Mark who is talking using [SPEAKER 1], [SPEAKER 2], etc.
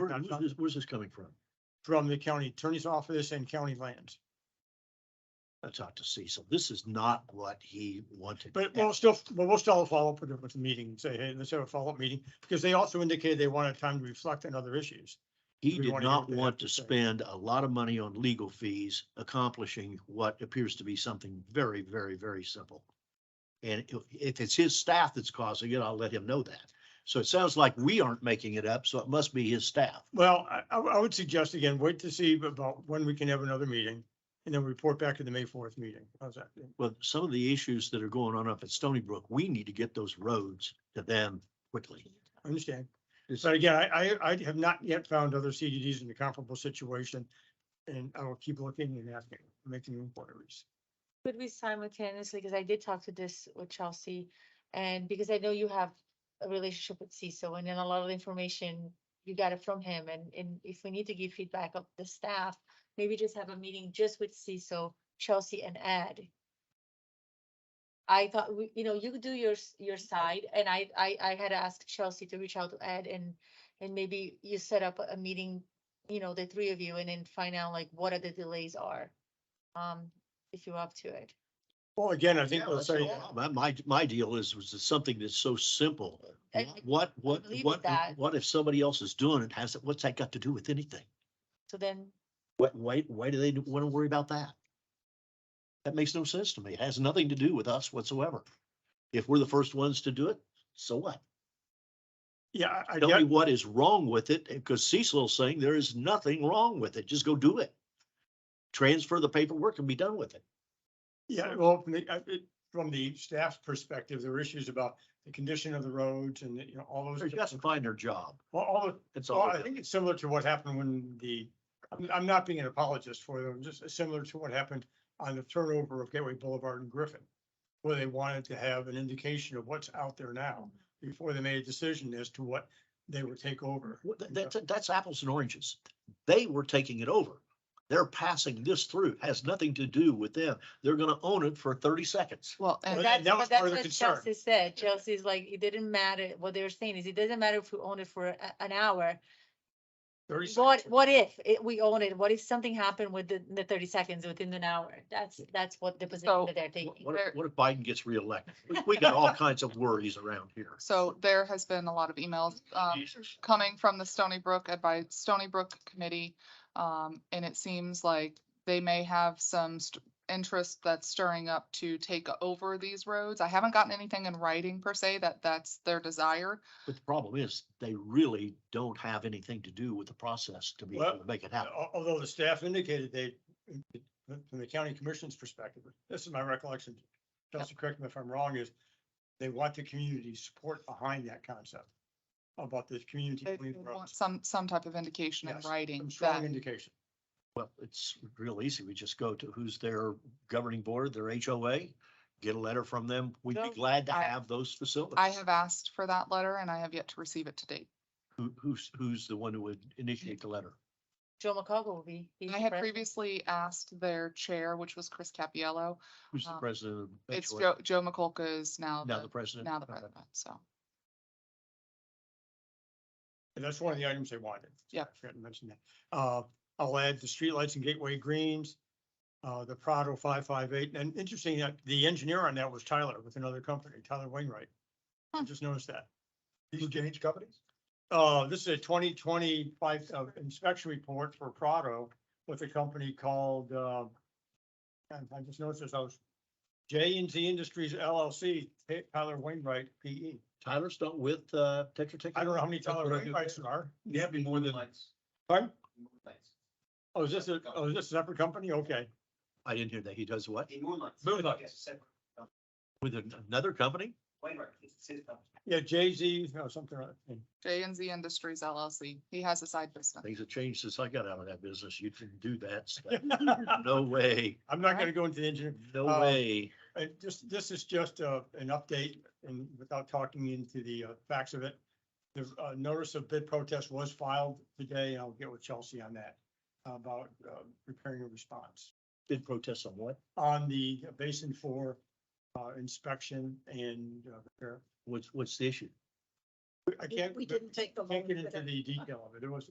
[SPEAKER 1] Where- where's this- where's this coming from?
[SPEAKER 2] from the county attorney's office and county lands.
[SPEAKER 1] That's out to sea. So this is not what he wanted.
[SPEAKER 2] But we'll still, but we'll still follow up with it with the meeting, say, hey, let's have a follow-up meeting, because they also indicated they wanted time to reflect on other issues.
[SPEAKER 1] He
[SPEAKER 2] we
[SPEAKER 1] did
[SPEAKER 2] wanna hear what
[SPEAKER 1] not
[SPEAKER 2] they have
[SPEAKER 1] want
[SPEAKER 2] to
[SPEAKER 1] to
[SPEAKER 2] say.
[SPEAKER 1] spend a lot of money on legal fees accomplishing what appears to be something very, very, very simple. And if, if it's his staff that's causing it, I'll let him know that. So it sounds like we aren't making it up, so it must be his staff.
[SPEAKER 2] Well, I, I I would suggest again, wait to see about when we can have another meeting and then report back to the May fourth meeting. How's that?
[SPEAKER 1] Well, some of the issues that are going on up at Stony Brook, we need to get those roads to them quickly.
[SPEAKER 2] I understand.
[SPEAKER 1] Yes.
[SPEAKER 2] But again, I, I, I have not yet found other CDDs in a comparable situation. And I will keep looking and asking, making inquiries.
[SPEAKER 3] Could we simultaneously, because I did talk to this with Chelsea, and because I know you have a relationship with CISO, and then a lot of the information you got it from him, and, and if we need to give feedback of the staff, maybe just have a meeting just with CISO, Chelsea and Ed. I thought, we, you know, you could do your, s- your side, and I, I, I had asked Chelsea to reach out to Ed and, and maybe you set up a- a meeting, you know, the three of you, and then find out like what are the delays are. Um, if you're up to it.
[SPEAKER 2] Well, again, I think
[SPEAKER 1] Yeah,
[SPEAKER 2] we'll
[SPEAKER 1] that's
[SPEAKER 2] say,
[SPEAKER 1] no problem. My, my, my deal is, was it's something that's so simple.
[SPEAKER 3] I-
[SPEAKER 1] What, what,
[SPEAKER 3] believe in
[SPEAKER 1] what,
[SPEAKER 3] that.
[SPEAKER 1] what if somebody else is doing it? Has, it? what's that got to do with anything?
[SPEAKER 3] So then,
[SPEAKER 1] Why, why, why do they want to worry about that? That makes no sense to me. It has nothing to do with us whatsoever. If we're the first ones to do it, so what?
[SPEAKER 2] yeah, I- I
[SPEAKER 1] Tell
[SPEAKER 2] get,
[SPEAKER 1] me what is wrong with it, because Cecil's saying there is nothing wrong with it. Just go do it. Transfer the paperwork and be done with it.
[SPEAKER 2] Yeah, well, from the, I- it- from the staff's perspective, there were issues about the condition of the roads and, you know, all those.
[SPEAKER 1] They're just find their job.
[SPEAKER 2] Well, all, the-
[SPEAKER 1] That's
[SPEAKER 2] well,
[SPEAKER 1] all.
[SPEAKER 2] I think it's similar to what happened when the, I'm, I'm not being an apologist for them, just similar to what happened on the turnover of Gateway Boulevard and Griffin, where they wanted to have an indication of what's out there now before they made a decision as to what they would take over.
[SPEAKER 1] Well, that- That's, that's apples and oranges. They were taking it over. They're passing this through. It Has nothing to do with them. They're gonna own it for thirty seconds.
[SPEAKER 3] well,
[SPEAKER 2] Well,
[SPEAKER 3] and that's,
[SPEAKER 2] that was
[SPEAKER 3] but
[SPEAKER 2] part
[SPEAKER 3] that's
[SPEAKER 2] of the
[SPEAKER 3] what
[SPEAKER 2] concern.
[SPEAKER 3] Chelsea said. Chelsea's like, it didn't matter. What they were saying is it doesn't matter if we own it for a- an hour.
[SPEAKER 2] 30 seconds.
[SPEAKER 3] What, what if it, we own it? What if something happened within the thirty seconds within an hour? That's, that's what the position
[SPEAKER 4] So,
[SPEAKER 3] that they're
[SPEAKER 1] What,
[SPEAKER 3] taking.
[SPEAKER 1] what if- what if Biden gets reelected? We- We got all kinds of worries around here.
[SPEAKER 4] So there has been a lot of emails um, coming from the Stony Brook, by Stony Brook Committee. um, And it seems like they may have some st- interest that's stirring up to take over these roads. I haven't gotten anything in writing per se that that's their desire.
[SPEAKER 1] But the problem is, they really don't have anything to do with the process to be able
[SPEAKER 2] Well,
[SPEAKER 1] to make it happen.
[SPEAKER 2] Uh, Al- Although the staff indicated they, from the county commission's perspective, this is my recollection. Chelsea, correct me if I'm wrong, is they want the community support behind that concept about this community.
[SPEAKER 4] They
[SPEAKER 2] clean
[SPEAKER 4] would want
[SPEAKER 2] roads.
[SPEAKER 4] some, some type of indication in
[SPEAKER 2] Yes,
[SPEAKER 4] writing
[SPEAKER 2] Some strong
[SPEAKER 4] that,
[SPEAKER 2] indication.
[SPEAKER 1] Well, it's real easy. We just go to who's their governing board, their HOA, get a letter from them. We'd be
[SPEAKER 3] No,
[SPEAKER 1] glad to
[SPEAKER 4] I-
[SPEAKER 1] have those facilities.
[SPEAKER 4] I have asked for that letter and I have yet to receive it to date.
[SPEAKER 1] Who, who's, who's the one who would initiate the letter?
[SPEAKER 3] Joe McCogle will be. he's
[SPEAKER 4] I
[SPEAKER 3] the
[SPEAKER 4] had
[SPEAKER 3] president.
[SPEAKER 4] previously asked their chair, which was Chris Capiello.
[SPEAKER 1] Who's the
[SPEAKER 4] Um,
[SPEAKER 1] president of?
[SPEAKER 4] It's
[SPEAKER 1] HOA?
[SPEAKER 4] Joe, Joe McCulca is now
[SPEAKER 1] Now the
[SPEAKER 4] the,
[SPEAKER 1] president.
[SPEAKER 4] now the
[SPEAKER 1] Okay.
[SPEAKER 4] president, so.
[SPEAKER 2] And that's one of the items they wanted.
[SPEAKER 4] Yeah.
[SPEAKER 2] I forgot to mention that. Uh, I'll add the streetlights and gateway greens, uh, the Prado five five eight. And interesting, that the engineer on that was Tyler with another company, Tyler Wainwright. I
[SPEAKER 4] Hmm.
[SPEAKER 2] just noticed that.
[SPEAKER 5] These change companies?
[SPEAKER 2] Uh, this is a twenty twenty-five uh, inspection report for Prado with a company called, uh, and I just noticed this, I was J and Z Industries LLC, Ty- Tyler Wainwright, P E.
[SPEAKER 1] Tyler's not with, uh, Tetra Tech?
[SPEAKER 2] I don't know how many Tyler
[SPEAKER 5] That's what I do.
[SPEAKER 2] Wainwrights there are.
[SPEAKER 5] Yeah, be more than. Lights.
[SPEAKER 2] Pardon?
[SPEAKER 5] More lights.
[SPEAKER 2] Oh, is this a, oh, is this a separate company? Okay.
[SPEAKER 1] I didn't hear that. He does what?
[SPEAKER 5] Be more lights.
[SPEAKER 2] Moonlights.
[SPEAKER 5] Yes, separate.
[SPEAKER 1] With an- another company?
[SPEAKER 5] Wainwright, it's the same company.
[SPEAKER 2] Yeah, Jay Z or something. like that.
[SPEAKER 4] J and Z Industries LLC. He has a side business.
[SPEAKER 1] Things have changed since I got out of that business. You didn't do that. stuff. No way,
[SPEAKER 2] I'm not gonna go into the engineer.
[SPEAKER 1] no
[SPEAKER 4] Um,
[SPEAKER 2] Uh,
[SPEAKER 1] way.
[SPEAKER 2] Uh, just, this is just, uh, an update and without talking into the uh, facts of it. The, uh, notice of bid protest was filed today. I'll get with Chelsea on that about, uh, preparing a response
[SPEAKER 1] Bid protests on what?
[SPEAKER 2] on the basin for, uh, inspection and, uh, repair.
[SPEAKER 1] What's, what's the issue?
[SPEAKER 2] I can't. We didn't take the. Can't get into the detail of it. It was,